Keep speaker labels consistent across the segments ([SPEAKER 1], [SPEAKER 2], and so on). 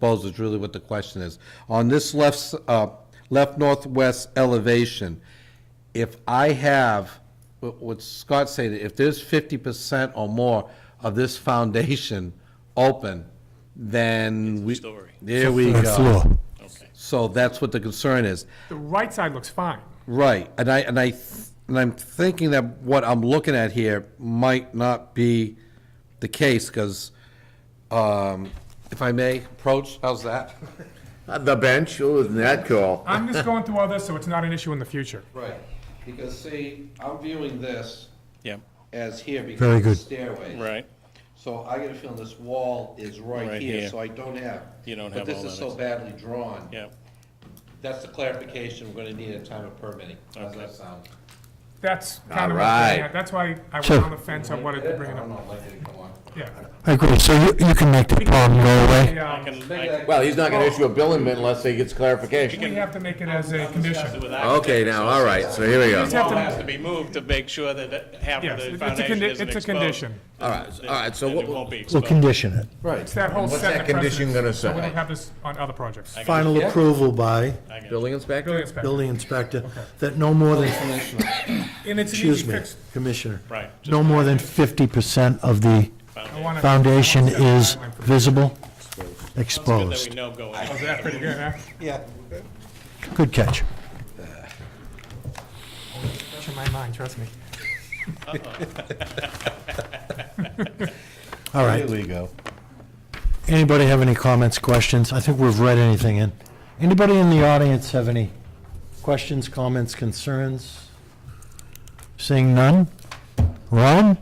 [SPEAKER 1] Bose is really what the question is. On this left, s- uh, left northwest elevation, if I have, what what Scott said, if there's fifty percent or more of this foundation open, then we.
[SPEAKER 2] story.
[SPEAKER 1] There we
[SPEAKER 3] Uh,
[SPEAKER 1] go.
[SPEAKER 3] Floor.
[SPEAKER 2] Okay.
[SPEAKER 1] So that's what the concern is.
[SPEAKER 4] The right side looks fine.
[SPEAKER 1] Right, and I, and I, th- and I'm thinking that what I'm looking at here might not be the case, because, um, if I may, approach, how's that?
[SPEAKER 5] Not The bench, oh, isn't that cool?
[SPEAKER 4] I'm just going through all this, so it's not an issue in the future.
[SPEAKER 1] Right, because see, I'm viewing this
[SPEAKER 2] Yeah,
[SPEAKER 1] as here because
[SPEAKER 3] Very
[SPEAKER 1] of the
[SPEAKER 3] good.
[SPEAKER 1] stairway.
[SPEAKER 2] right.
[SPEAKER 1] So I get a feeling this wall is right
[SPEAKER 2] Right
[SPEAKER 1] here,
[SPEAKER 2] here.
[SPEAKER 1] so I don't have.
[SPEAKER 2] You don't have
[SPEAKER 1] But this
[SPEAKER 2] all
[SPEAKER 1] is so
[SPEAKER 2] that
[SPEAKER 1] badly drawn.
[SPEAKER 2] Yeah,
[SPEAKER 1] That's the clarification we're gonna need at time of permitting. How's that sound?
[SPEAKER 4] That's kind of,
[SPEAKER 5] All right.
[SPEAKER 4] yeah, that's why I was
[SPEAKER 3] Sure.
[SPEAKER 4] on the fence, I wanted to bring it
[SPEAKER 1] I don't
[SPEAKER 4] up.
[SPEAKER 1] know, like, it, come on.
[SPEAKER 4] Yeah.
[SPEAKER 3] I agree, so you, you can make the problem go away.
[SPEAKER 4] Yeah,
[SPEAKER 2] I can, I
[SPEAKER 1] Make
[SPEAKER 2] can
[SPEAKER 1] that-
[SPEAKER 5] Well, he's not gonna issue a building permit unless he gets
[SPEAKER 4] We
[SPEAKER 5] clarification.
[SPEAKER 4] have to make it as a
[SPEAKER 2] discuss it
[SPEAKER 4] condition.
[SPEAKER 2] with architect.
[SPEAKER 5] Okay, now, all right, so here we
[SPEAKER 4] Just have
[SPEAKER 5] go.
[SPEAKER 2] Wall
[SPEAKER 4] to-
[SPEAKER 2] has to be moved to make sure that half
[SPEAKER 4] Yes,
[SPEAKER 2] of
[SPEAKER 4] it's
[SPEAKER 2] the
[SPEAKER 4] a
[SPEAKER 2] foundation isn't
[SPEAKER 4] condi- it's a
[SPEAKER 2] exposed.
[SPEAKER 4] condition.
[SPEAKER 5] All right, all right, so
[SPEAKER 2] Then
[SPEAKER 5] what,
[SPEAKER 2] it won't be
[SPEAKER 3] We'll
[SPEAKER 2] exposed.
[SPEAKER 3] condition it.
[SPEAKER 4] It's that whole
[SPEAKER 5] What's
[SPEAKER 4] set
[SPEAKER 5] that
[SPEAKER 4] of
[SPEAKER 5] condition
[SPEAKER 4] precedents,
[SPEAKER 5] gonna
[SPEAKER 4] so we
[SPEAKER 5] say?
[SPEAKER 4] don't have this on other projects.
[SPEAKER 3] Final approval by
[SPEAKER 2] I got it.
[SPEAKER 5] building inspector?
[SPEAKER 4] Building inspector.
[SPEAKER 3] building inspector that no more than,
[SPEAKER 4] And it's an
[SPEAKER 3] excuse
[SPEAKER 4] easy
[SPEAKER 3] me,
[SPEAKER 4] fix.
[SPEAKER 3] Commissioner.
[SPEAKER 2] Right, just
[SPEAKER 3] No more than fifty percent of
[SPEAKER 4] I
[SPEAKER 3] the
[SPEAKER 4] wanna-
[SPEAKER 3] foundation
[SPEAKER 4] I wanna
[SPEAKER 3] is
[SPEAKER 4] set a timeline for this.
[SPEAKER 3] visible,
[SPEAKER 2] Good that
[SPEAKER 3] exposed.
[SPEAKER 2] we know going
[SPEAKER 4] Oh,
[SPEAKER 2] in.
[SPEAKER 4] is that pretty good, huh?
[SPEAKER 3] Good catch.
[SPEAKER 4] It's in my mind, trust me.
[SPEAKER 3] All
[SPEAKER 1] There
[SPEAKER 3] right.
[SPEAKER 1] we go.
[SPEAKER 3] Anybody have any comments, questions? I think we've read anything in. Anybody in the audience have any questions, comments, concerns? Seeing none? Ron,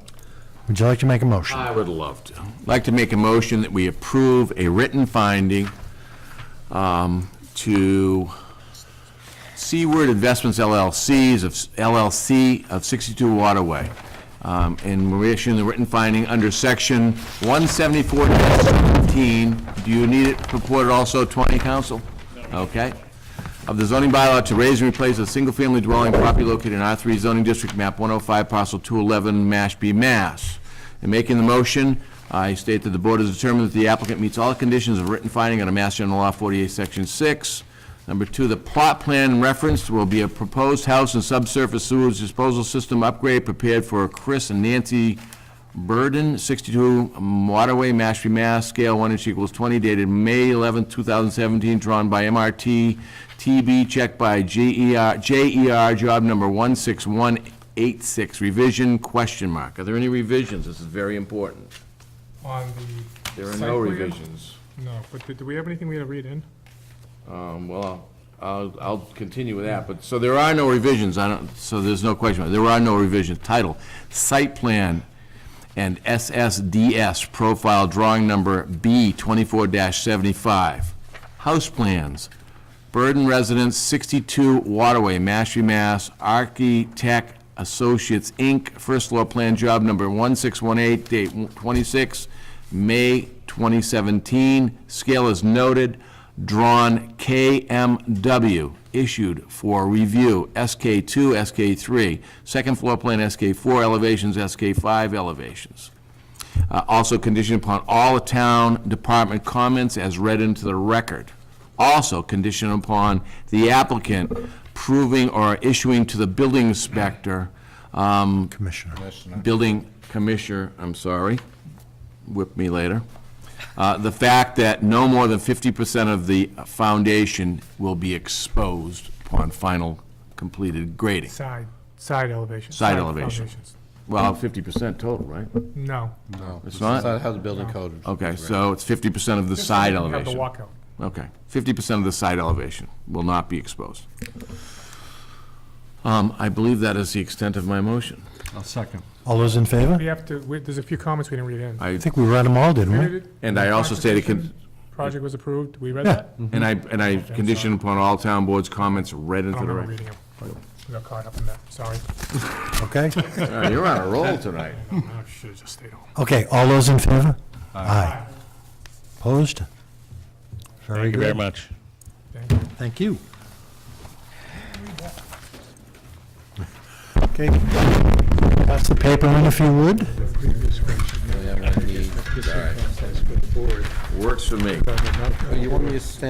[SPEAKER 3] would you like to make a motion?
[SPEAKER 5] I would love to. I'd like to make a motion that we approve a written finding um, to Seaward Investments LLCs of, LLC of 62 Waterway. Um, And we're issuing the written finding under section 174-17. Do you need it purported also 20, council? Okay. Of the zoning bylaw to raise and replace a single-family dwelling property located in R3 zoning district, map 105, parcel 211, Mashpee, Mass. In making the motion, I state that the board has determined that the applicant meets all the conditions of written finding under Mass General Law 48, Section 6. Number two, the plot plan referenced will be a proposed house and subsurface sewage disposal system upgrade prepared for Chris and Nancy Burden, 62 Waterway, Mashpee, Mass, scale 1 inch equals 20, dated May 11, 2017, drawn by MRT TB, checked by E GER, JER, job number 16186, revision, question mark. Are there any revisions? This is very important.
[SPEAKER 4] On the.
[SPEAKER 5] There are
[SPEAKER 4] site
[SPEAKER 5] no
[SPEAKER 4] plan?
[SPEAKER 5] revisions.
[SPEAKER 4] No, but did- do we have anything we had to read in?
[SPEAKER 5] Um, Well, I'll, I'll continue with that, but, so there are no revisions, I don't, so there's no question, there are no revisions. Title, Site Plan and SSDS Profile Drawing Number B 24-75. House Plans, Burden Residence, 62 Waterway, Mashpee, Mass, Architect Associates, Inc., First Floor Plan Job Number 1618, date 26, May 2017. Scale is noted, drawn KMW, issued for review, SK2, SK3, second floor plan SK4 elevations, SK5 elevations. Uh, Also conditioned upon all the town department comments as read into the record. Also conditioned upon the applicant proving or issuing to the building inspector, um,
[SPEAKER 3] Commissioner.
[SPEAKER 5] building commissioner, I'm sorry, whip me later, uh, the fact that no more than 50% of the foundation will be exposed upon final completed grading.
[SPEAKER 4] Side, side elevation.
[SPEAKER 5] Side elevation.
[SPEAKER 4] elevations.
[SPEAKER 5] Well, 50% total, right?
[SPEAKER 4] No.
[SPEAKER 1] No, it's
[SPEAKER 5] not?
[SPEAKER 1] not how the building code. is.
[SPEAKER 5] Okay, so it's 50% of the side
[SPEAKER 4] You Have the
[SPEAKER 5] elevation.
[SPEAKER 4] walkout.
[SPEAKER 5] Okay, 50% of the side elevation will not be exposed. Um, I believe that is the extent of my motion.
[SPEAKER 3] All those in favor?
[SPEAKER 4] We have to, we- there's a few comments we didn't read in.
[SPEAKER 3] I think we read them all, didn't we?
[SPEAKER 5] And I also stated, con-
[SPEAKER 4] Project was approved, we read
[SPEAKER 3] Yeah.
[SPEAKER 4] that?
[SPEAKER 5] and I, and I conditioned upon all town board's comments read
[SPEAKER 4] I
[SPEAKER 5] into
[SPEAKER 4] don't
[SPEAKER 5] the
[SPEAKER 4] remember
[SPEAKER 5] record.
[SPEAKER 4] reading them. I got caught up in that, sorry.
[SPEAKER 3] Okay?
[SPEAKER 5] All right, You're on a roll tonight.
[SPEAKER 4] I should've just stayed home.
[SPEAKER 3] Okay, all those in favor? Aye. Opposed? Very
[SPEAKER 2] Thank you very
[SPEAKER 3] good.
[SPEAKER 2] much.
[SPEAKER 4] Thank you.
[SPEAKER 3] Thank you. Okay. Pass the paper in if you would.
[SPEAKER 1] Yeah, I need- All right.
[SPEAKER 5] Works for me.
[SPEAKER 1] You want me to stand